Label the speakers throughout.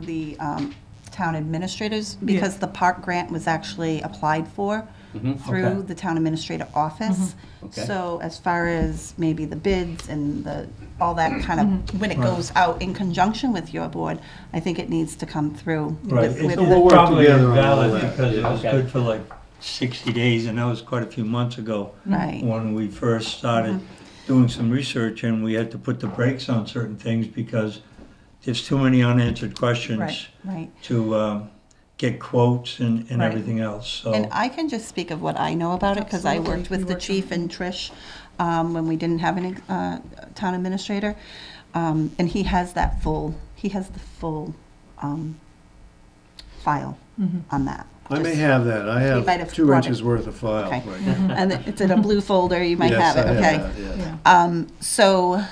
Speaker 1: the um, town administrators, because the park grant was actually applied for through
Speaker 2: Mm-hmm. okay. Mm-hmm.
Speaker 1: the town administrator office.
Speaker 2: Okay.
Speaker 1: So as far as maybe the bids and the, all that kind of, when it goes out in conjunction with your board, I think it needs to come through.
Speaker 2: Right,
Speaker 1: with-
Speaker 2: it's
Speaker 1: with
Speaker 2: a
Speaker 1: the-
Speaker 2: little
Speaker 3: We'll work
Speaker 2: Probably
Speaker 3: together on all
Speaker 2: valid
Speaker 3: that.
Speaker 2: because it was
Speaker 3: Okay.
Speaker 2: good for like 60 days, and that was quite a few months ago.
Speaker 1: Right.
Speaker 2: When we first started doing some research, and we had to put the brakes on certain things because there's too many unanswered questions
Speaker 4: Right.
Speaker 1: Right.
Speaker 2: to um, get quotes and and
Speaker 4: Right.
Speaker 2: everything else, so.
Speaker 1: And I can just speak of what I know about it, because I
Speaker 4: Absolutely.
Speaker 1: worked with
Speaker 4: You
Speaker 1: the
Speaker 4: worked
Speaker 1: chief and Trish um, when we didn't have an uh, town administrator. Um, And he has that full, he has the full um, file
Speaker 4: Mm-hmm.
Speaker 1: on that.
Speaker 3: I may
Speaker 1: Just-
Speaker 3: have that. I
Speaker 1: might have
Speaker 3: have two
Speaker 1: brought it.
Speaker 3: inches worth of file.
Speaker 1: Okay.
Speaker 3: right
Speaker 4: Mm-hmm.
Speaker 3: now.
Speaker 1: And it's in a blue folder, you might
Speaker 3: Yes,
Speaker 1: have it,
Speaker 3: I
Speaker 1: okay?
Speaker 3: that, yes.
Speaker 4: Yeah.
Speaker 1: Um, so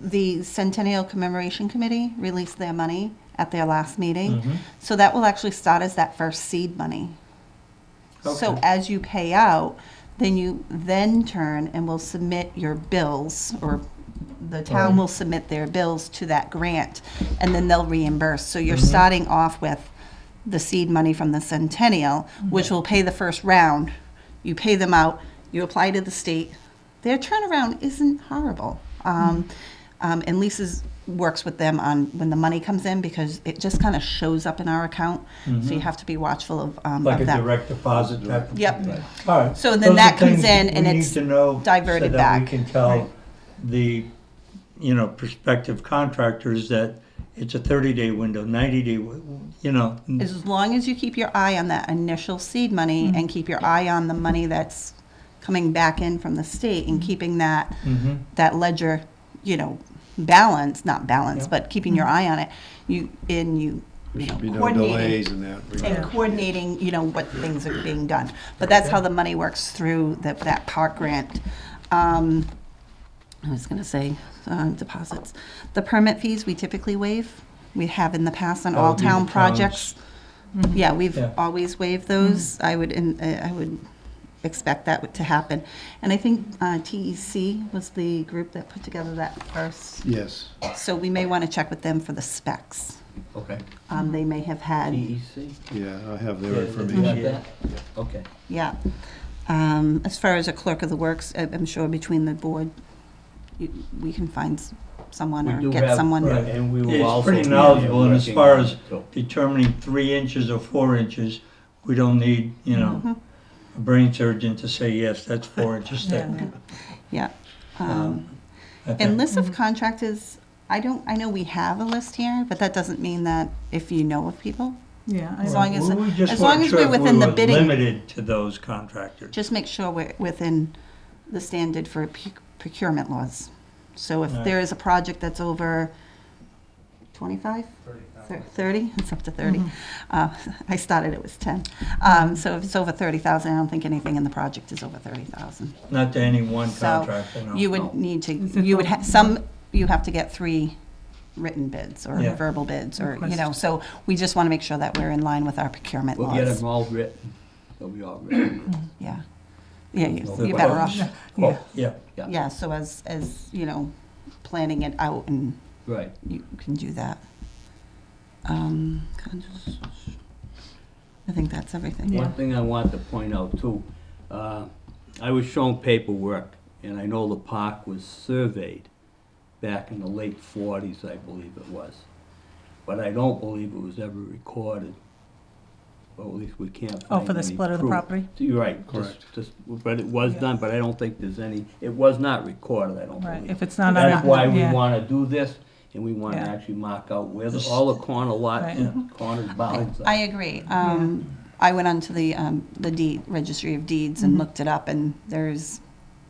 Speaker 1: the Centennial Commemoration Committee released their money at their last meeting.
Speaker 3: Mm-hmm.
Speaker 2: Mhm.
Speaker 1: So that will actually start as that first seed money. So
Speaker 2: Okay.
Speaker 1: as you pay out, then you then turn and will submit your bills or the town
Speaker 2: Right.
Speaker 1: will submit their bills to that grant and then they'll reimburse. So you're
Speaker 2: Mm-hmm.
Speaker 1: starting off with the seed money from the Centennial,
Speaker 2: Mm-hmm.
Speaker 1: which will pay the first round. You pay them out, you apply to the state. Their turnaround isn't horrible. Um, um, and Lisa's works with them on when the money comes in because it just kind of shows up in our account. So you have to be watchful of, um,
Speaker 2: Mm-hmm. Like
Speaker 1: of
Speaker 2: a
Speaker 1: that.
Speaker 2: direct deposit type of.
Speaker 1: Yep.
Speaker 2: thing. All right.
Speaker 1: So then
Speaker 2: Those are
Speaker 1: that comes in
Speaker 2: things
Speaker 1: and
Speaker 2: we need
Speaker 1: it's
Speaker 2: to know
Speaker 1: diverted
Speaker 2: So that
Speaker 1: back.
Speaker 2: we can tell the, you know, prospective contractors that it's a thirty-day window, ninety-day, you know.
Speaker 1: As long as you keep your eye on that initial seed money and keep your eye on the money that's coming back in from the state and keeping that,
Speaker 2: Mhm.
Speaker 1: that ledger, you know, balance, not balance,
Speaker 2: Yeah.
Speaker 1: but keeping your eye on it, you, and you,
Speaker 3: There
Speaker 1: you know,
Speaker 3: should be no
Speaker 1: coordinating.
Speaker 3: delays in that.
Speaker 1: And
Speaker 3: regard.
Speaker 1: coordinating, you know, what things are being done. But that's how the money works through that, that park grant. Um, I was gonna say, um, deposits. The permit fees, we typically waive. We have in the past on
Speaker 2: That
Speaker 1: all
Speaker 2: would be the
Speaker 1: town
Speaker 2: Oh, town's-
Speaker 1: projects. Yeah, we've
Speaker 2: Yeah.
Speaker 1: always waived those. I would, in- uh, I would expect that to happen. And I think uh, TEC was the group that put together that first,
Speaker 3: Yes.
Speaker 1: so we may want to check with them for the specs.
Speaker 5: Okay.
Speaker 1: Um, They may have had,
Speaker 5: DEC?
Speaker 3: Yeah, I have their
Speaker 5: Yeah,
Speaker 3: information.
Speaker 5: you got that? Okay.
Speaker 1: yeah. Um, As far as a clerk of the works, I- I'm sure between the board, you- we can find s- someone
Speaker 5: We
Speaker 1: or
Speaker 5: do
Speaker 1: get
Speaker 5: have-
Speaker 1: someone.
Speaker 2: Right,
Speaker 5: And we will
Speaker 2: It's
Speaker 5: also
Speaker 2: pretty
Speaker 5: be
Speaker 2: knowledgeable, and as
Speaker 5: working
Speaker 2: far
Speaker 5: on
Speaker 2: as
Speaker 5: it, so-
Speaker 2: determining three inches or four inches, we don't need, you
Speaker 1: Mm-hmm.
Speaker 2: know, a brain surgeon to say, yes, that's four inches thick.
Speaker 4: Yeah.
Speaker 1: Uh, Yeah. Um,
Speaker 2: Um, I
Speaker 1: And
Speaker 2: think-
Speaker 1: list of contractors, I don't, I know we have a list here, but that doesn't mean that if you know of people,
Speaker 4: Yeah. I
Speaker 1: as
Speaker 4: don't-
Speaker 1: long as-
Speaker 2: We- we just
Speaker 1: as long
Speaker 2: weren't
Speaker 1: as
Speaker 2: sure
Speaker 1: we're
Speaker 2: if we
Speaker 1: within the
Speaker 2: were
Speaker 1: bidding-
Speaker 2: Limited to those contractors.
Speaker 1: just make sure we're within the standard for p- procurement laws. So if
Speaker 2: Right.
Speaker 1: there is a project that's over 25? 30, it's up to 30.
Speaker 4: Mm-hmm.
Speaker 1: Uh, I started, it was 10. Um, So if it's over 30,000, I don't think anything in the project is over 30,000.
Speaker 2: Not to any one
Speaker 1: So
Speaker 2: contractor, no.
Speaker 1: you would need to,
Speaker 4: Is it
Speaker 1: you would
Speaker 4: the-
Speaker 1: have, some, you have to get three written bids or
Speaker 2: Yeah.
Speaker 1: verbal bids or, you know,
Speaker 4: Requests.
Speaker 1: so we just want to make sure that we're in line with our procurement
Speaker 5: We'll get
Speaker 1: laws.
Speaker 5: them all written. They'll be all written.
Speaker 1: Yeah. Yeah, you-
Speaker 5: No
Speaker 1: you're better off.
Speaker 2: quotes. Oh, yeah.
Speaker 1: Yeah, so as, as, you know, planning it out and
Speaker 5: Right.
Speaker 1: you can do that. Um, I think that's everything.
Speaker 4: Yeah.
Speaker 5: One thing I want to point out too, uh, I was shown paperwork, and I know the park was surveyed back in the late forties, I believe it was. But I don't believe it was ever recorded, or at least we can't
Speaker 4: Oh,
Speaker 5: find
Speaker 4: for the
Speaker 5: any
Speaker 4: split of the
Speaker 5: proof.
Speaker 4: property?
Speaker 5: You're right.
Speaker 3: Correct.
Speaker 5: Just- just- But it was done, but I don't think there's any, it was not recorded, I don't
Speaker 4: Right,
Speaker 5: believe.
Speaker 4: if it's not on
Speaker 5: That's
Speaker 4: a-
Speaker 5: why we
Speaker 4: yeah.
Speaker 5: wanna do this, and we wanna
Speaker 4: Yeah.
Speaker 5: actually mark out where the,
Speaker 2: This-
Speaker 5: all the corner lot,
Speaker 4: Right.
Speaker 5: and corner bounds are.
Speaker 1: I agree. Um, I went onto the, um, the deed, registry of deeds and looked it up and there's,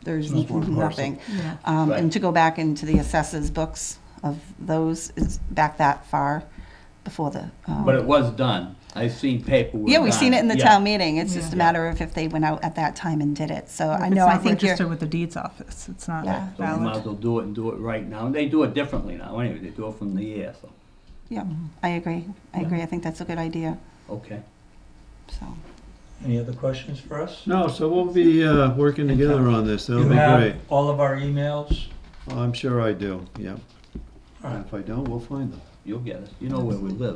Speaker 1: there's
Speaker 3: There's one parcel.
Speaker 1: nothing.
Speaker 4: Yeah.
Speaker 1: Um, and
Speaker 5: Right.
Speaker 1: to go back into the assessors books of those is back that far before the, um,
Speaker 5: But it was done. I've seen paperwork.
Speaker 1: yeah, we've seen it in the
Speaker 5: done.
Speaker 1: town meeting. It's just a
Speaker 4: Yeah.
Speaker 1: matter of if they went out at that time and did it. So
Speaker 4: If
Speaker 1: I
Speaker 4: it's
Speaker 1: know, I
Speaker 4: not
Speaker 1: think you're.
Speaker 4: Registered with the deeds office, it's not
Speaker 1: Yeah.
Speaker 5: So we might as
Speaker 4: valid.
Speaker 5: well do it and do it right now. And they do it differently now, anyway. They do it from the air, so,
Speaker 1: Yeah, I agree. I agree. I think that's a good idea,
Speaker 5: okay.
Speaker 1: so.
Speaker 2: Any other questions for us?
Speaker 3: No, so we'll be uh, working together on this. That'll
Speaker 2: You
Speaker 3: be great.
Speaker 2: have all of our emails?
Speaker 3: I'm sure I do, yeah.
Speaker 2: All right.
Speaker 3: If I don't, we'll find them.
Speaker 5: you'll get it, you know where we live.